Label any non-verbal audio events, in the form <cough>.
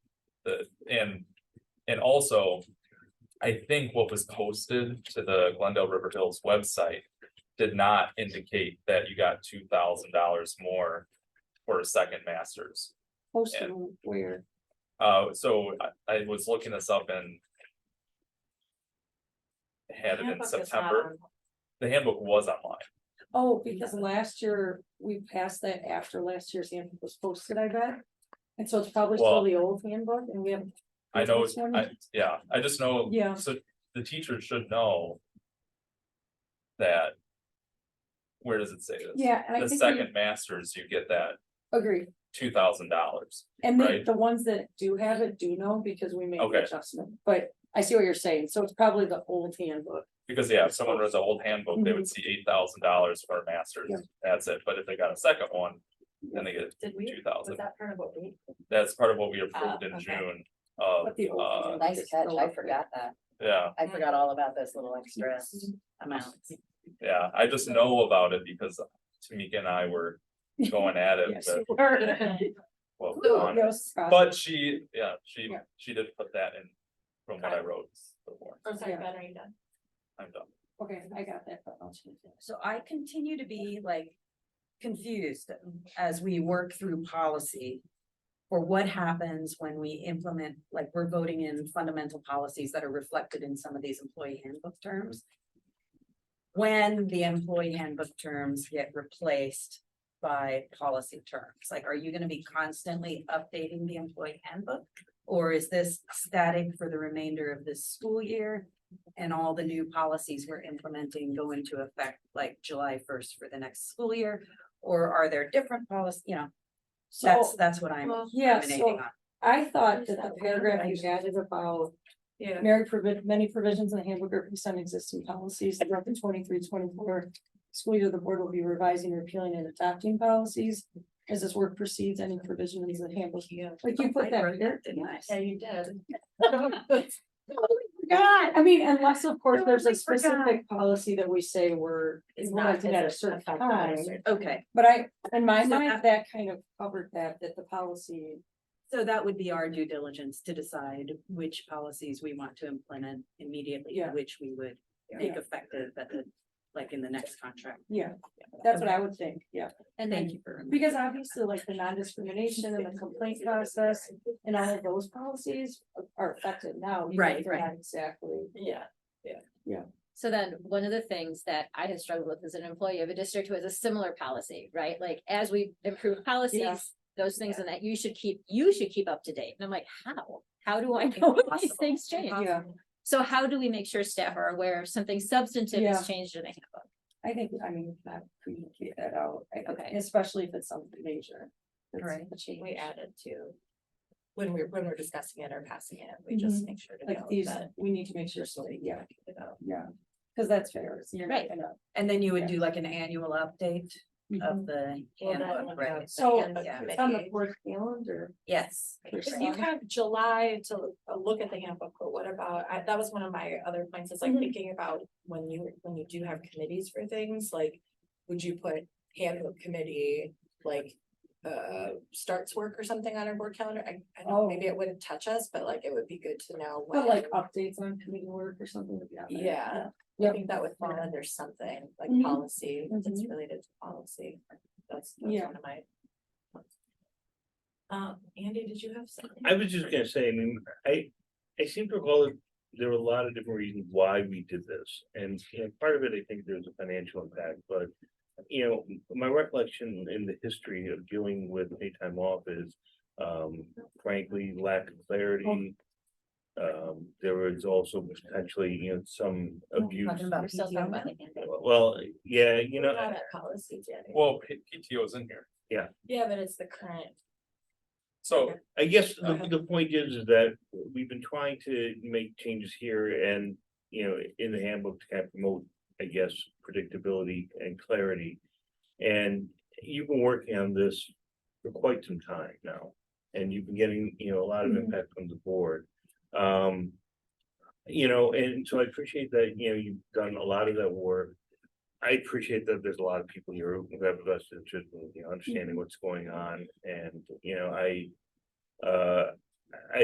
the, and, and also. I think what was posted to the Glendale River Hills website did not indicate that you got two thousand dollars more. For a second masters, Posted where, uh, so I, I was looking this up and. Had it in Handbook is not September, on- the handbook was online, oh, because last year, we passed that after last year's handbook was posted, I bet. And so it's probably Well- still the old handbook and we have. I know, this one? I, yeah, I just know. Yeah. So the teacher should know. That. Where does it say this? Yeah, and I The think we second masters, you get that agree. two thousand dollars. And the, Right. the ones that do have it do know because we made Okay. the adjustment, but I see what you're saying. So it's probably the old handbook. Because yeah, if someone reads an old handbook, they would see eight thousand dollars for a masters, Mm-hmm. Yeah. that's it, but if they got a second one, then they get Did we, two was thousand. that part of what we? That's part of what we Ah, approved in okay. June of, But the old uh, handbook Nice is catch, still I up there. forgot that. yeah, I forgot all about those little extra Mm-hmm. amounts. yeah, I just know about it because Tamika and I <laughs> were going at it, Yes. but, well, Oh, on- that was Scott. But she, yeah, she, Yeah. she did put that in from what I wrote before, I'm sorry, Yeah. Ben, are you done? I'm done. Okay, I got that. but I'll change it. So I continue to be like confused as we work through policy. For what happens when we implement, like we're voting in fundamental policies that are reflected in some of these employee handbook terms. When the employee handbook terms get replaced by policy terms, like are you gonna be constantly updating the employee handbook? Or is this static for the remainder of this school year? and all the new policies we're implementing go into effect like July first for the next school year? Or are there different policies, you know, that's, So that's what I'm Well, yeah, emanating so- on. I thought Is that the that paragraph right? you added about Yeah. Mary provid, many provisions in the handbook are based on existing policies, the record twenty-three, twenty-four. School year, the board will be revising, repealing and adopting policies. As this work proceeds, any provisions in the handbook, like you put I that wrote there. Oh Didn't I? Yeah, you did. God, <laughs> I mean, unless of course there's a Totally forgot. specific policy that we say we're It's not- implementing at a it's certain not that time. it's- Okay, But I, in my So mind, that- that kind of covered that, that the policy, so that would be our due diligence to decide which policies we want to implement immediately, Yeah. and which we would Yeah. make effective at the, like in the next contract. yeah, that's what I would think, yeah. And thank you for. Because obviously like the non-discrimination and the complaint process and all of those policies are affected now. even if Right, they're right. not Exactly. Yeah. So then, one of the things that I have struggled with as an employee of a district was a similar policy, right? Like, as we improve policies, those things and that you should keep, you should keep up to date. And I'm like, how? How do I know when these Impossible. things change? Impossible. Yeah, So how do we make sure staff are aware if something substantive Yeah. has changed in the handbook? I think, I mean, that communicate that out, I think, Okay. especially if it's something major. that's Right. a change. We added to. When we're, when we're discussing it or passing it, we just Mhm. make sure to Like know these, that. we need to make sure, so, yeah, you know, yeah, because that's fair, so you're not Right. gonna. And then you would do like an annual update of the Mm-hmm. Well, that handbook, one right? got- So, yeah, Mm-hmm. It's on the committee. fourth calendar. Yes. If you have July to uh, look at the handbook, but what about, I, that was one of my other points, is like Mhm. Mm-hmm. thinking about when you, when you do have committees for things, like. Would you put handbook committee, like, uh, starts work or something on our board calendar? I, I Oh. know, maybe it wouldn't touch us, but like, it would be good to know. But when. like updates on committee work or something like that. right? Yeah, I Yep. think that would fall under something like Mhm. policy, that's Mhm. related to policy, that's, that's Yeah. one of my. Um, Andy, did you have something? I was just gonna say, I mean, I, I seem to recall that there were a lot of different reasons why we did this, and, you know, part of it, I think there's a financial impact, but. You know, my recollection in the history of dealing with paid time off is, um, frankly, lack of clarity. Oh. Um, there was also potentially, you know, some abuse, Talking about We're still talking PTO about now? the handbook. well, yeah, you We're know. Not at policy, Jenny. Well, P- PTO's in here, Yeah, but it's the current. so I guess Go the, ahead. the point is, is that we've been trying to make changes here and, you know, in the handbook to kind of promote, I guess, predictability and clarity. And you've been working on this for quite some time now, and you've been getting, you know, a lot of Mhm. impact from the board. Um, you know, and so I appreciate that, you know, you've done a lot of that work. I appreciate that there's a lot of people here who have a vested interest in, you know, understanding what's going on, and, you know, I uh, I